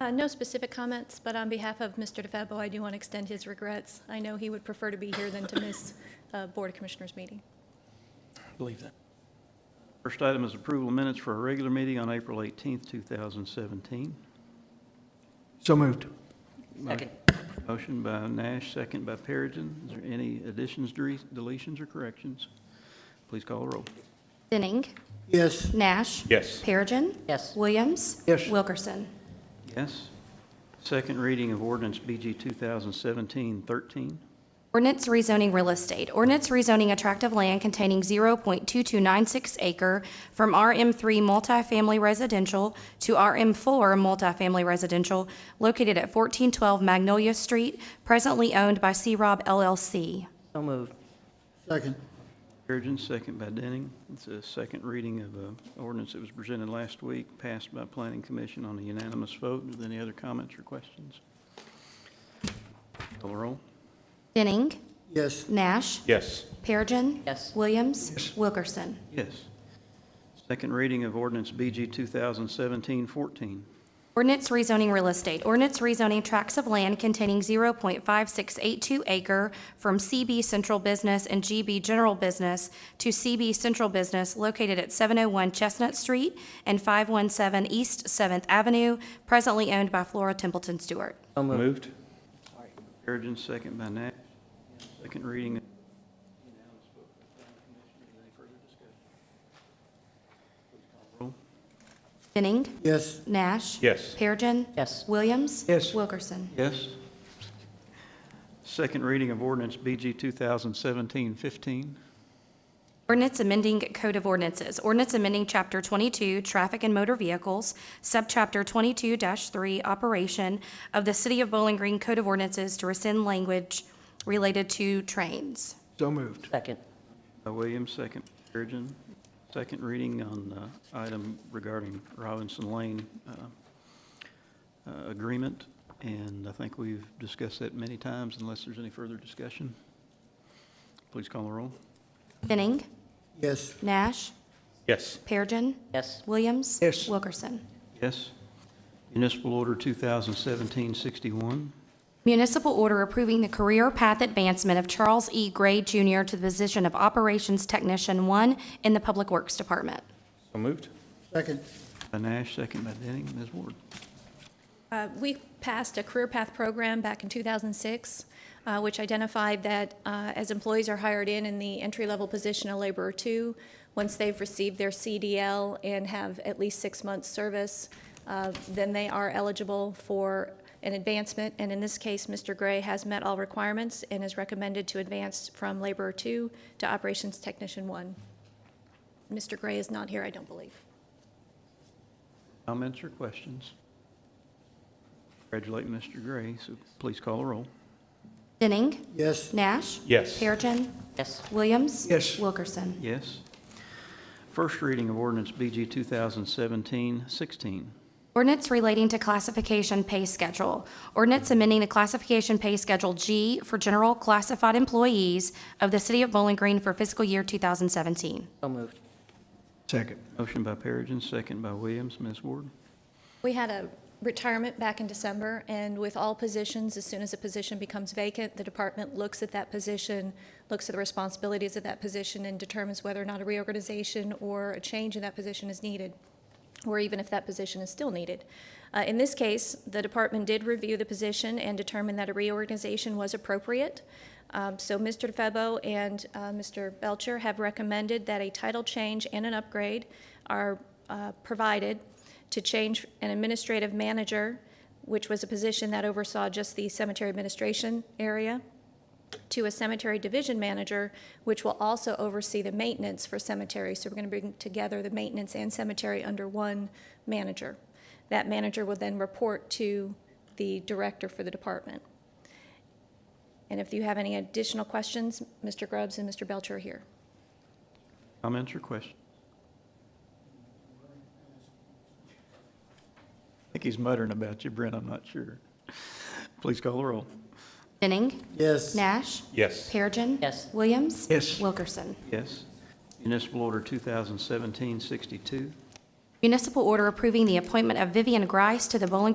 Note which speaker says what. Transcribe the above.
Speaker 1: Uh, No specific comments, but on behalf of Mr. DeFebo, I do want to extend his regrets. I know he would prefer to be here than to miss a Board of Commissioners meeting.
Speaker 2: Believe that.
Speaker 3: First item is approval of minutes for our regular meeting on April 18th, 2017.
Speaker 2: So moved.
Speaker 4: Second.
Speaker 3: Motion by Nash, second by Perigin. Is there any additions, dere- deletions, or corrections? Please call the roll.
Speaker 5: Denning.
Speaker 2: Yes.
Speaker 5: Nash.
Speaker 6: Yes.
Speaker 5: Perigin.
Speaker 4: Yes.
Speaker 5: Williams.
Speaker 2: Yes.
Speaker 5: Wilkerson.
Speaker 3: Yes. Second reading of ordinance BG 2017-13.
Speaker 5: Ordinance rezoning real estate. Ordinance rezoning a tract of land containing 0.2296 acre from RM3 multifamily residential to RM4 multifamily residential located at 1412 Magnolia Street, presently owned by C-Rob LLC.
Speaker 4: So moved.
Speaker 2: Second.
Speaker 3: Perigin, second by Denning. It's a second reading of an ordinance that was presented last week, passed by Planning Commission on a unanimous vote. Are there any other comments or questions? Call the roll.
Speaker 5: Denning.
Speaker 2: Yes.
Speaker 5: Nash.
Speaker 6: Yes.
Speaker 5: Perigin.
Speaker 4: Yes.
Speaker 5: Williams. Wilkerson.
Speaker 3: Yes. Second reading of ordinance BG 2017-14.
Speaker 5: Ordinance rezoning real estate. Ordinance rezoning tracts of land containing 0.5682 acre from CB Central Business and GB General Business to CB Central Business located at 701 Chestnut Street and 517 East 7th Avenue, presently owned by Flora Templeton Stewart.
Speaker 4: So moved.
Speaker 6: Moved?
Speaker 3: Perigin, second by Nash. Second reading. Unanimous vote by planning commission. Is there any further discussion? Please call the roll.
Speaker 5: Denning.
Speaker 2: Yes.
Speaker 5: Nash.
Speaker 6: Yes.
Speaker 5: Perigin.
Speaker 4: Yes.
Speaker 5: Williams.
Speaker 2: Yes.
Speaker 5: Wilkerson.
Speaker 3: Yes. Second reading of ordinance BG 2017-15.
Speaker 5: Ordinance amending Code of Ordinances. Ordinance amending Chapter 22, Traffic and Motor Vehicles, Subchapter 22-3, Operation of the City of Bowling Green Code of Ordinances to rescind language related to trains.
Speaker 2: So moved.
Speaker 4: Second.
Speaker 3: By Williams, second by Perigin. Second reading on uh, item regarding Robinson Lane uh, uh, agreement, and I think we've discussed that many times unless there's any further discussion. Please call the roll.
Speaker 5: Denning.
Speaker 2: Yes.
Speaker 5: Nash.
Speaker 6: Yes.
Speaker 5: Perigin.
Speaker 4: Yes.
Speaker 5: Williams.
Speaker 2: Yes.
Speaker 5: Wilkerson.
Speaker 3: Yes. Municipal Order 2017-61.
Speaker 5: Municipal order approving the career path advancement of Charles E. Gray Jr. to the position of Operations Technician 1 in the Public Works Department.
Speaker 6: So moved?
Speaker 2: Second.
Speaker 3: By Nash, second by Denning. Ms. Ward.
Speaker 1: Uh, We passed a career path program back in 2006, uh, which identified that uh, as employees are hired in in the entry-level position of laborer two, once they've received their CDL and have at least six months' service, uh, then they are eligible for an advancement. And in this case, Mr. Gray has met all requirements and is recommended to advance from laborer two to operations technician one. Mr. Gray is not here, I don't believe.
Speaker 3: Comments or questions? Congratulate Mr. Gray, so please call the roll.
Speaker 5: Denning.
Speaker 2: Yes.
Speaker 5: Nash.
Speaker 6: Yes.
Speaker 5: Perigin.
Speaker 4: Yes.
Speaker 5: Williams.
Speaker 2: Yes.
Speaker 5: Wilkerson.
Speaker 3: Yes. First reading of ordinance BG 2017-16.
Speaker 5: Ordinance relating to classification pay schedule. Ordinance amending the classification pay schedule G for general classified employees of the City of Bowling Green for fiscal year 2017.
Speaker 4: So moved.
Speaker 2: Second.
Speaker 3: Motion by Perigin, second by Williams. Ms. Ward.
Speaker 1: We had a retirement back in December, and with all positions, as soon as a position becomes vacant, the department looks at that position, looks at the responsibilities of that position, and determines whether or not a reorganization or a change in that position is needed, or even if that position is still needed. Uh, In this case, the department did review the position and determined that a reorganization was appropriate. Um, So Mr. DeFebo and uh, Mr. Belcher have recommended that a title change and an upgrade are uh, provided to change an administrative manager, which was a position that oversaw just the cemetery administration area, to a cemetery division manager, which will also oversee the maintenance for cemeteries. So we're going to bring together the maintenance and cemetery under one manager. That manager will then report to the director for the department. And if you have any additional questions, Mr. Grubbs and Mr. Belcher are here.
Speaker 3: Comments or questions? I think he's muttering about you, Brent, I'm not sure. Please call the roll.
Speaker 5: Denning.
Speaker 2: Yes.
Speaker 5: Nash.
Speaker 6: Yes.
Speaker 5: Perigin.
Speaker 4: Yes.
Speaker 5: Williams.
Speaker 2: Yes.
Speaker 5: Wilkerson.
Speaker 3: Yes. Municipal Order 2017-62.
Speaker 5: Municipal order approving the appointment of Vivian Grice to the Bowling Green